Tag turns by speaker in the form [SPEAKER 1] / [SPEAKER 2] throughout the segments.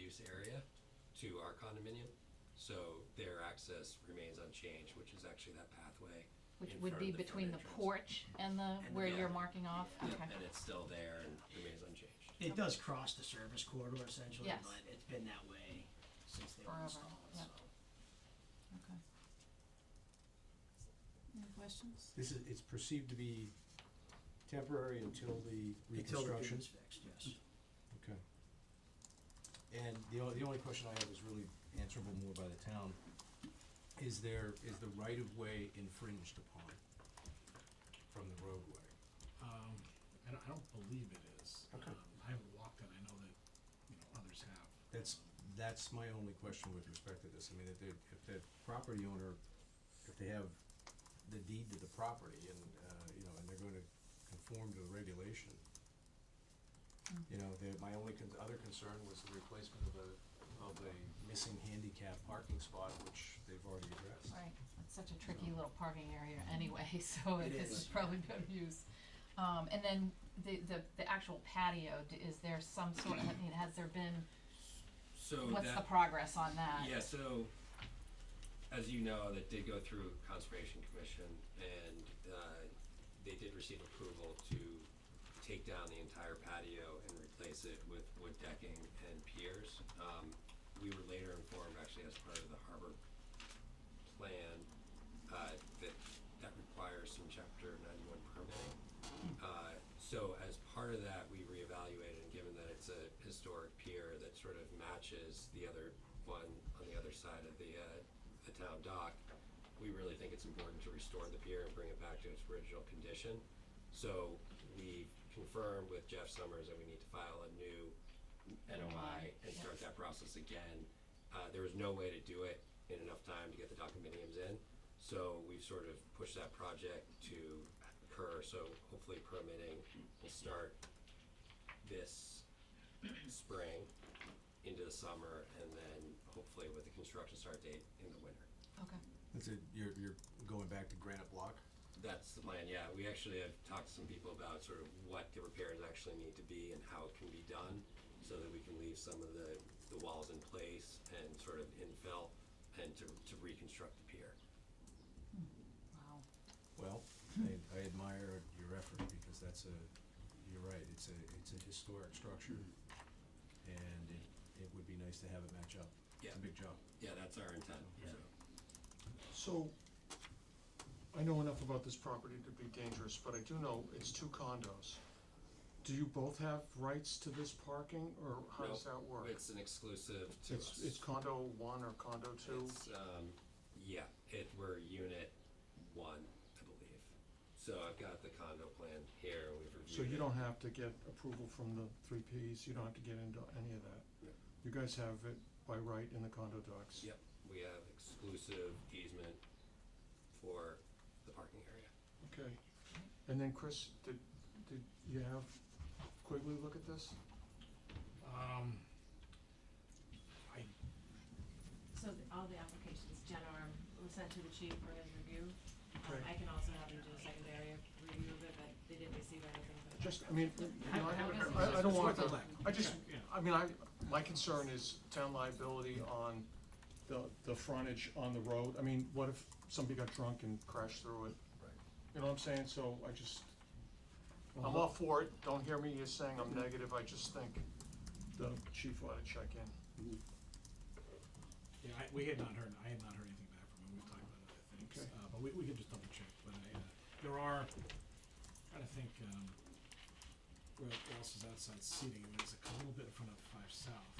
[SPEAKER 1] this area to our condominium. So their access remains unchanged, which is actually that pathway.
[SPEAKER 2] Which
[SPEAKER 1] in
[SPEAKER 2] would
[SPEAKER 1] front
[SPEAKER 2] be
[SPEAKER 1] of the front
[SPEAKER 2] between the
[SPEAKER 1] entrance.
[SPEAKER 2] porch and the,
[SPEAKER 1] the
[SPEAKER 2] where you're
[SPEAKER 1] building.
[SPEAKER 2] marking off?
[SPEAKER 1] Yep,
[SPEAKER 2] Okay.
[SPEAKER 1] And it's still there and remains unchanged.
[SPEAKER 3] It does cross the service corridor essentially,
[SPEAKER 2] Yes.
[SPEAKER 3] but it's been that way since they were
[SPEAKER 2] Forever,
[SPEAKER 3] installed, so.
[SPEAKER 2] yeah. Okay. Any questions?
[SPEAKER 4] This is, it's perceived to be temporary until the
[SPEAKER 3] Until the
[SPEAKER 4] reconstruction?
[SPEAKER 3] building's fixed, yes.
[SPEAKER 4] Okay. And the only, the only question I have is really answerable more by the town. Is there, is the right-of-way infringed upon from the roadway?
[SPEAKER 5] Um, I don't, I don't believe it is.
[SPEAKER 4] Okay.
[SPEAKER 5] Um, I haven't walked it, I know that, you know, others have.
[SPEAKER 4] That's, that's my only question with respect to this. I mean, if the, if the property owner, if they have the deed to the property and, uh, you know, and they're gonna conform to the regulation. You know, the, my only con- other concern was the replacement of a, of a missing handicap parking spot, which they've already addressed.
[SPEAKER 2] Right, it's such a tricky little parking area anyway, so
[SPEAKER 3] It
[SPEAKER 2] this
[SPEAKER 3] is.
[SPEAKER 2] is probably better use. Um, and then the, the, the actual patio, d- is there some sort of, I mean, has there been,
[SPEAKER 1] So
[SPEAKER 2] what's the
[SPEAKER 1] Oh, that,
[SPEAKER 2] progress on that?
[SPEAKER 1] yeah, so as you know, that did go through Conservation Commission and, uh, they did receive approval to take down the entire patio and replace it with wood decking and piers. Um, we were later informed, actually, as part of the harbor plan, uh, that that requires some chapter ninety-one permitting. Uh, so as part of that, we reevaluated, and given that it's a historic pier that sort of matches the other one on the other side of the, uh, the town dock, we really think it's important to restore the pier and bring it back to its original condition. So we confirmed with Jeff Summers that we need to file a new NOI and start that process again. Uh, there was no way to do it in enough time to get the documentiums in, so we've sort of pushed that project to occur, so hopefully permitting will start this spring into the summer, and then hopefully with the construction start date in the winter.
[SPEAKER 2] Okay,
[SPEAKER 4] That's it, you're, you're going back to granite block?
[SPEAKER 1] That's the plan, yeah. We actually have talked to some people about sort of what the repairs actually need to be and how it can be done so that we can leave some of the, the walls in place and sort of infill and to, to reconstruct the pier.
[SPEAKER 2] wow,
[SPEAKER 4] Well, I, I admire your effort because that's a, you're right, it's a, it's a historic structure. And it, it would be nice to have it match up. It's
[SPEAKER 1] Yeah.
[SPEAKER 4] a big job.
[SPEAKER 1] Yeah, that's our intent,
[SPEAKER 3] Yeah.
[SPEAKER 1] so.
[SPEAKER 6] So, I know enough about this property to be dangerous, but I do know it's two condos. Do you both have rights to this parking, or how does
[SPEAKER 1] No,
[SPEAKER 6] that work?
[SPEAKER 1] It's an exclusive to us.
[SPEAKER 6] It's, it's condo one or condo two?
[SPEAKER 1] It's, um, yeah, it, we're unit one, I believe. So I've got the condo plan here, and we've reviewed
[SPEAKER 6] So you
[SPEAKER 1] it.
[SPEAKER 6] don't have to get approval from the three Ps, you don't have to get into any of
[SPEAKER 1] Yeah.
[SPEAKER 6] that? You guys have it by right in the condo docs?
[SPEAKER 1] Yep, we have exclusive easement for the parking area.
[SPEAKER 6] Okay. And then Chris, did, did you have Quigley look at this?
[SPEAKER 5] Um, I,
[SPEAKER 7] So th- all the applications, Jen Arm was sent to the chief for his review. Um, I
[SPEAKER 6] Okay.
[SPEAKER 7] can also have him do a secondary review of it, but they didn't receive anything for the.
[SPEAKER 6] Just, I mean, you know, I- I, I don't
[SPEAKER 5] it's
[SPEAKER 6] want
[SPEAKER 5] worth
[SPEAKER 6] to.
[SPEAKER 5] a look.
[SPEAKER 6] I just,
[SPEAKER 5] Yeah,
[SPEAKER 6] I mean, I, my concern is town liability on the, the frontage on the road. I mean, what if somebody got drunk and crashed through it?
[SPEAKER 1] Right.
[SPEAKER 6] You know what I'm saying? So I just, I'm all for it. Don't hear me as saying I'm negative. I just think the chief ought to check in.
[SPEAKER 5] yeah, I, we had not heard, I had not heard anything back from him, we talked about other things,
[SPEAKER 6] Okay.
[SPEAKER 5] uh, but we, we could just double check, but I, uh, there are, I think, um, where where else is outside seating, and there's a little bit in front of Five South,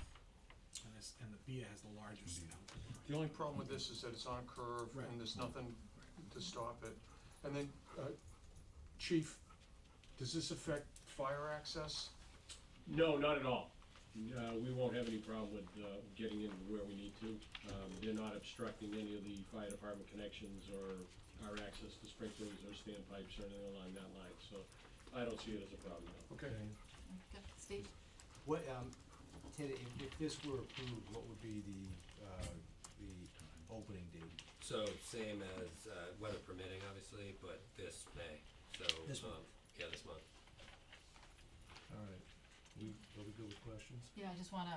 [SPEAKER 5] and this, and the Bia has the larger seat out.
[SPEAKER 6] The only problem with this is that it's on a curve
[SPEAKER 5] Right.
[SPEAKER 6] and there's nothing to stop it. And then, uh, chief, does this affect fire access?
[SPEAKER 8] No, not at all. Uh, we won't have any problem with, uh, getting in where we need to. Um, they're not obstructing any of the fire department connections or our access to sprinklers or standpipes or anything along that line, so I don't see it as a problem at all.
[SPEAKER 6] Okay.
[SPEAKER 2] good, Steve?
[SPEAKER 4] What, um, Ted, if, if this were approved, what would be the, uh, the opening date?
[SPEAKER 1] So same as uh, weather permitting, obviously, but this May. So
[SPEAKER 3] This
[SPEAKER 1] um,
[SPEAKER 3] month.
[SPEAKER 1] yeah, this month.
[SPEAKER 4] All right, we, are we good with questions?
[SPEAKER 2] Yeah, I just wanna